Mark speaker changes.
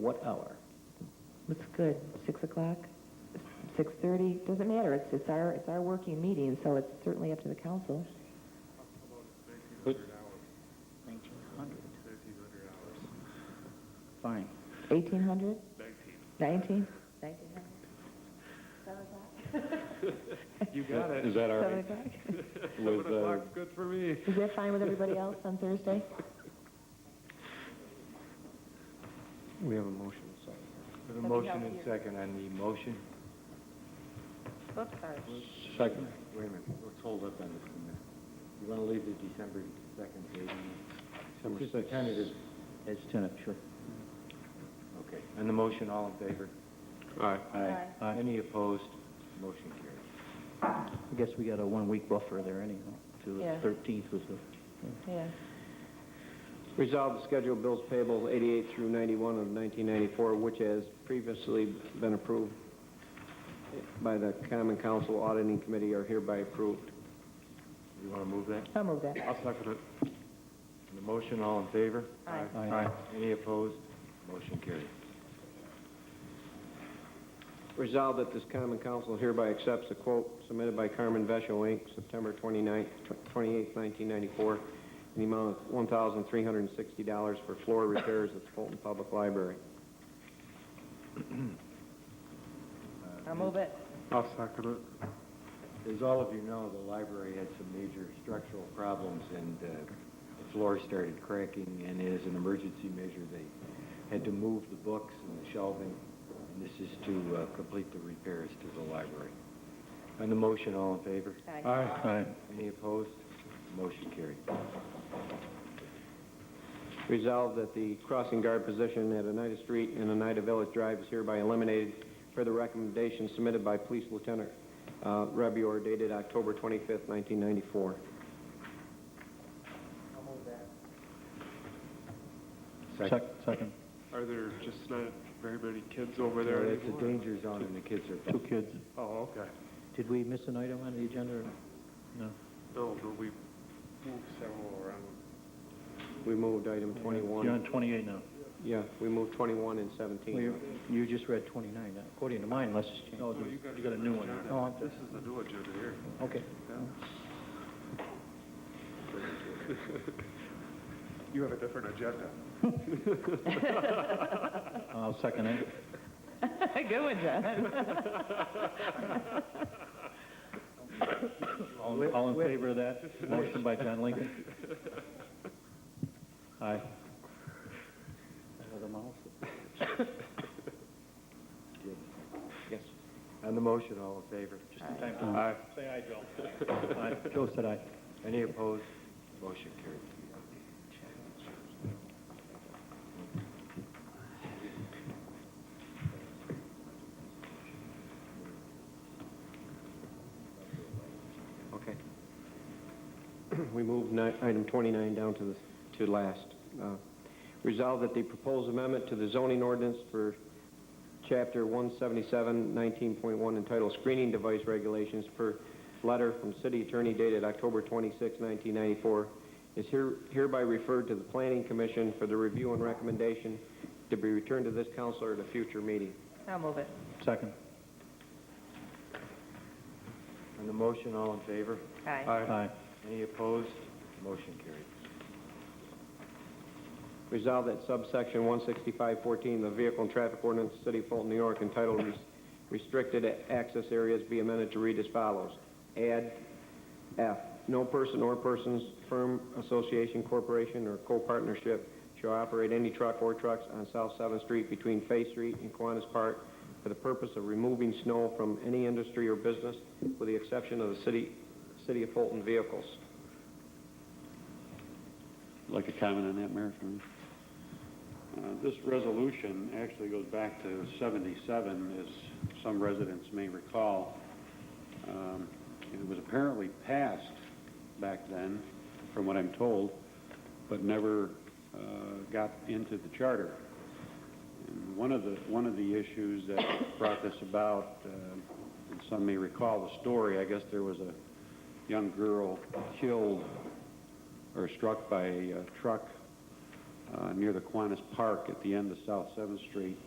Speaker 1: What hour?
Speaker 2: It's good. Six o'clock, six thirty, doesn't matter. It's, it's our, it's our working meeting, so it's certainly up to the council.
Speaker 1: Nineteen hundred. Fine.
Speaker 2: Eighteen hundred? Nineteen. Nineteen?
Speaker 3: You got it.
Speaker 4: Is that all
Speaker 2: Seven
Speaker 4: right?
Speaker 2: o'clock?
Speaker 4: With,
Speaker 3: Seven
Speaker 4: uh,
Speaker 3: o'clock's good for me.
Speaker 2: Is that fine with everybody else on Thursday?
Speaker 5: We have a motion, so. We have a motion and second on the motion.
Speaker 2: Oops, sorry.
Speaker 4: second?
Speaker 5: Wait a minute, let's hold up on this a minute. You want to leave the December second date in? December sixth. Tentative.
Speaker 1: It's ten, sure.
Speaker 5: Okay. On the motion, all in favor?
Speaker 3: Aye.
Speaker 1: Aye.
Speaker 5: Any opposed? Motion carries.
Speaker 1: I guess we got a one-week buffer there anyhow, to the
Speaker 2: Yeah.
Speaker 1: thirteenth was the...
Speaker 2: Yeah.
Speaker 6: Resolve the schedule of bills payable 88 through 91 of 1994, which has previously been approved by the Common Council Auditing Committee are hereby approved.
Speaker 5: You want to move that?
Speaker 2: I'll move that.
Speaker 3: I'll second it.
Speaker 5: On the motion, all in favor?
Speaker 2: Aye.
Speaker 1: Aye.
Speaker 5: Any opposed? Motion carries.
Speaker 6: Resolve that this Common Council hereby accepts the quote submitted by Carmen Vesho, Inc., September 29th, tw- 28th, 1994, in the amount of $1,360 for floor repairs at the Fulton Public Library.
Speaker 2: I'll move it.
Speaker 3: I'll second it.
Speaker 5: As all of you know, the library had some major structural problems and uh, the floor started cracking and as an emergency measure, they had to move the books and the shelving. And this is to uh, complete the repairs to the library. On the motion, all in favor?
Speaker 3: Aye.
Speaker 1: Aye.
Speaker 5: Any opposed? Motion carried.
Speaker 6: Resolved that the crossing guard position at Oneida Street and Oneida Village Drive is hereby eliminated per the recommendation submitted by Police Lieutenant uh, Rebior dated October 25th, 1994.
Speaker 1: Sec- Second.
Speaker 3: Are there just not very many kids over there
Speaker 5: That's
Speaker 3: anymore?
Speaker 5: Uh, a danger zone and the kids are...
Speaker 1: Two kids.
Speaker 3: Oh, okay.
Speaker 1: Did we miss an item on the agenda? or- No.
Speaker 3: No, but we moved several around.
Speaker 6: We moved item 21.
Speaker 1: You're on twenty-eight now.
Speaker 6: Yeah, we moved 21 and 17.
Speaker 1: You- You just read twenty-nine, now. according to mine, unless it's changed. No,
Speaker 3: you
Speaker 1: Oh, you got a new one.
Speaker 3: agenda.
Speaker 1: Oh, I'm-
Speaker 3: This is the new agenda here.
Speaker 1: Okay.
Speaker 3: You have a different agenda.
Speaker 1: I'll second it.
Speaker 2: Good one, John.
Speaker 1: All all in favor of that? Motion by John Lincoln? Aye.
Speaker 6: Yes.
Speaker 5: On the motion, all in favor?
Speaker 1: Time to- Say aye, Joe. Aye. Joe said aye.
Speaker 5: Any opposed? Motion carried.
Speaker 6: Okay. We moved ni- item 29 down to the, to last. Uh, Resolved that the proposed amendment to the zoning ordinance for Chapter 177, 19.1 entitled Screening Device Regulations per letter from City Attorney dated October 26, 1994 is here- hereby referred to the Planning Commission for the review and recommendation to be returned to this council at a future meeting.
Speaker 2: I'll move it.
Speaker 1: Second.
Speaker 5: On the motion, all in favor?
Speaker 2: Aye.
Speaker 1: Aye.
Speaker 5: Any opposed? Motion carried.
Speaker 6: Resolved that subsection 16514, the Vehicle and Traffic Ordinance, City of Fulton, New York, entitled Res- Restricted Access Areas, be amended to read as follows. Add F, no person or persons, firm, association, corporation, or co-partnership shall operate any truck or trucks on South 7th Street between Fay Street and Kiwanis Park for the purpose of removing snow from any industry or business, with the exception of the city, City of Fulton vehicles.
Speaker 7: like a comment on that, Mayor. if I may. Uh, This resolution actually goes back to 77, as some residents may recall. Um, It was apparently passed back then, from what I'm told, but never uh, got into the charter. And One of the, one of the issues that brought this about, uh, and some may recall the story, I guess there was a young girl killed or struck by a truck uh, near the Kiwanis Park at the end of South Seventh Street.